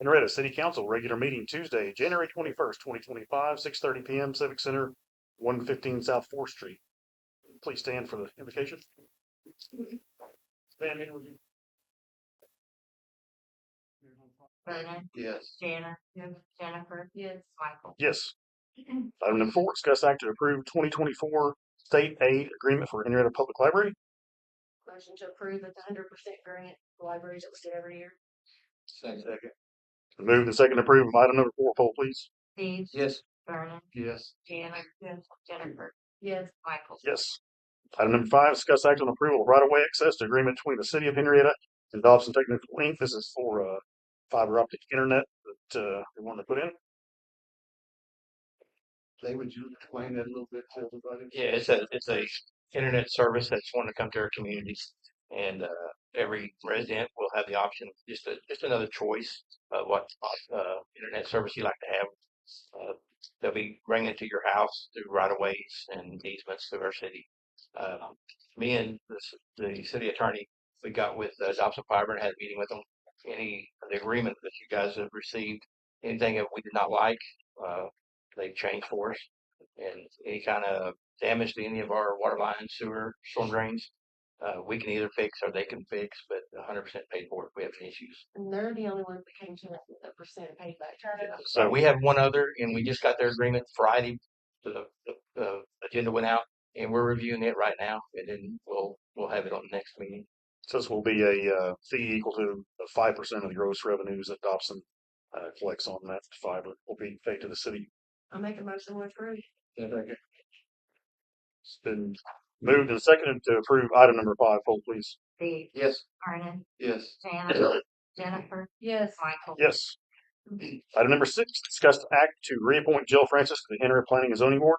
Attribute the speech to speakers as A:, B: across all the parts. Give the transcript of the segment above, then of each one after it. A: Henrietta City Council, regular meeting Tuesday, January twenty-first, twenty twenty-five, six thirty P M, Civic Center, one fifteen South Fourth Street. Please stand for the invocation. Stand in with you.
B: Vernon,
C: Yes.
B: Jana. Jennifer. Yes. Michael.
A: Yes. Item number four, discuss act to approve twenty twenty-four state aid agreement for Henrietta Public Library.
D: Motion to approve at the hundred percent grant to libraries that we do every year.
C: Second.
A: Move and second approve of item number four, poll please.
B: Steve.
C: Yes.
B: Vernon,
C: Yes.
B: Jana. Jennifer.
D: Yes.
B: Michael.
A: Yes. Item number five, discuss act on approval of right-of-way access to agreement between the city of Henrietta and Dobson Technical Inc. This is for, uh, fiber optic internet that, uh, we wanted to put in.
C: They would you explain that a little bit to everybody?
E: Yeah, it's a it's a internet service that's wanting to come to our communities, and uh, every resident will have the option just a, just another choice of what uh, internet service you like to have. Uh, they'll be bringing it to your house through right of ways and easements through our city. Um, me and the, s- the city attorney, we got with uh, Dobson Fiber and had a meeting with them. Any of the agreement that you guys have received, anything that we did not like, uh, they changed for us. And any kind of damage to any of our water lines, sewer, storm drains, uh, we can either fix or they can fix, but hundred percent paid for if we have any issues.
D: And they're the only ones that came to us with a percent payback.
E: So we have one other and we just got their agreement Friday. The, the, the agenda went out and we're reviewing it right now and then we'll, we'll have it on the next meeting.
A: So this will be a, uh, fee equal to five percent of the gross revenues that Dobson, uh, collects on that fiber will be paid to the city.
D: I'll make a motion to approve.
C: Second.
A: It's been moved and seconded to approve item number five, poll please.
B: Steve.
C: Yes.
B: Vernon,
C: Yes.
B: Jana. Jennifer.
D: Yes.
B: Michael.
A: Yes. Item number six, discuss the act to reappoint Jill Francis to the Henrietta Planning and Zoning Board.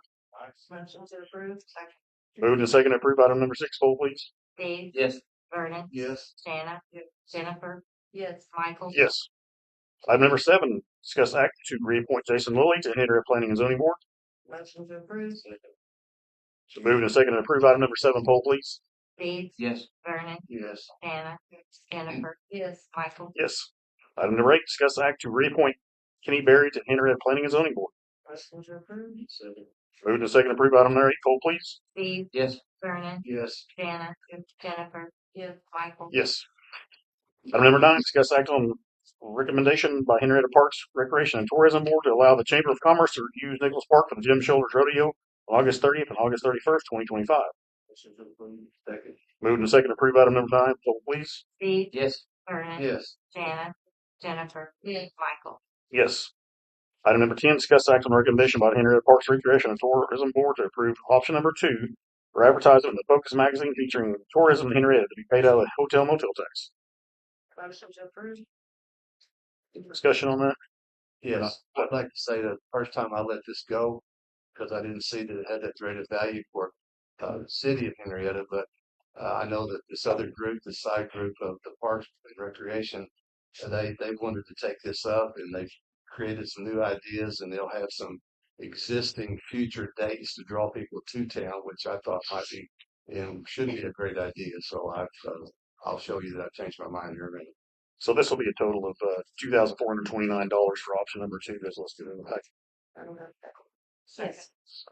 D: Motion to approve.
A: Moved and seconded to approve item number six, poll please.
B: Steve.
C: Yes.
B: Vernon,
C: Yes.
B: Jana. Jennifer.
D: Yes.
B: Michael.
A: Yes. Item number seven, discuss act to reappoint Jason Lilly to Henrietta Planning and Zoning Board.
D: Motion to approve.
A: So moved and seconded to approve item number seven, poll please.
B: Steve.
C: Yes.
B: Vernon,
C: Yes.
B: Jana. Jennifer.
D: Yes.
B: Michael.
A: Yes. Item number eight, discuss act to reappoint Kenny Berry to Henrietta Planning and Zoning Board.
D: Motion to approve.
C: Second.
A: Moved and seconded to approve item number eight, poll please.
B: Steve.
C: Yes.
B: Vernon,
C: Yes.
B: Jana. Jennifer.
D: Yes.
B: Michael.
A: Yes. Item number nine, discuss act on recommendation by Henrietta Parks Recreation and Tourism Board to allow the Chamber of Commerce to use Nicholas Park for the Jim Shoulders Rodeo on August thirtieth and August thirty-first, twenty twenty-five.
C: Motion to approve. Second.
A: Moved and seconded, approve item number nine, poll please.
B: Steve.
C: Yes.
B: Vernon,
C: Yes.
B: Jana. Jennifer. Michael.
A: Yes. Item number ten, discuss act on recommendation by the Henrietta Parks Recreation and Tourism Board to approve option number two for advertisement in the Focus magazine featuring tourism in Henrietta to be paid out of the hotel motel tax.
D: Motion to approve.
A: Discussion on that?
C: Yes. I'd like to say that the first time I let this go, because I didn't see that it had that great a value for uh, the city of Henrietta, but uh, I know that this other group, the side group of the Parks and Recreation, uh, they they wanted to take this up and they've created some new ideas and they'll have some existing future dates to draw people to town, which I thought might be and should be a great idea. So I uh, I'll show you that I changed my mind here. in a minute.
A: So this will be a total of, uh, two thousand four hundred twenty-nine dollars for option number two that's listed in the package.
D: I don't have that.
B: Second.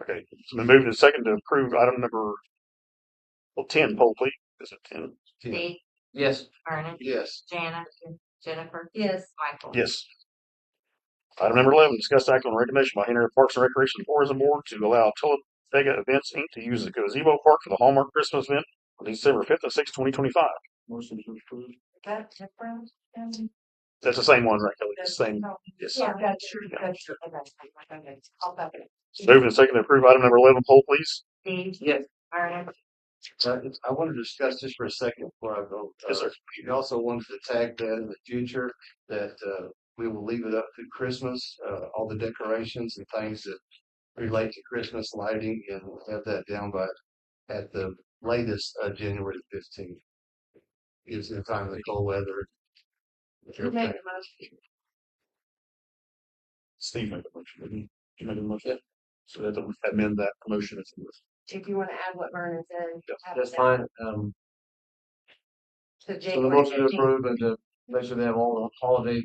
A: Okay, it's been moved and seconded to approve item number, well, ten, poll please. Is it ten?
B: Steve.
C: Yes.
B: Vernon,
C: Yes.
B: Jana. Jennifer.
D: Yes.
B: Michael.
A: Yes. Item number eleven, discuss act on recommendation by Henrietta Parks and Recreation and Tourism Board to allow Talladega Events Inc. to use the gazebo park for the Hallmark Christmas event on December fifth and sixth, twenty twenty-five.
C: Motion to approve.
D: That's different. Um,
A: That's the same one, right, Kelly? It's the Same. Yes.
D: Yeah, that's true. That's true. Okay. I'll back it.
A: Moved and seconded to approve item number eleven, poll please.
B: Steve.
C: Yes.
B: Vernon,
C: Uh, it's- I want to discuss this for a second before I go.
A: Yes,
C: Uh,
A: sir.
C: We also wanted to tag that in the future, that uh, we will leave it up to Christmas, uh, all the decorations and things that relate to Christmas lighting, and we'll have that down by, at the latest, uh, January fifteenth. Gives them time of the cold weather.
D: You made the motion.
A: Steve made the motion. didn't he? You made the motion. So that will amend that motion. if you wish.
D: If you want to add what Vernon said.
A: Yeah,
D: have it
C: fine. Um,
D: To January fifteenth.
C: and to make sure they have all the holiday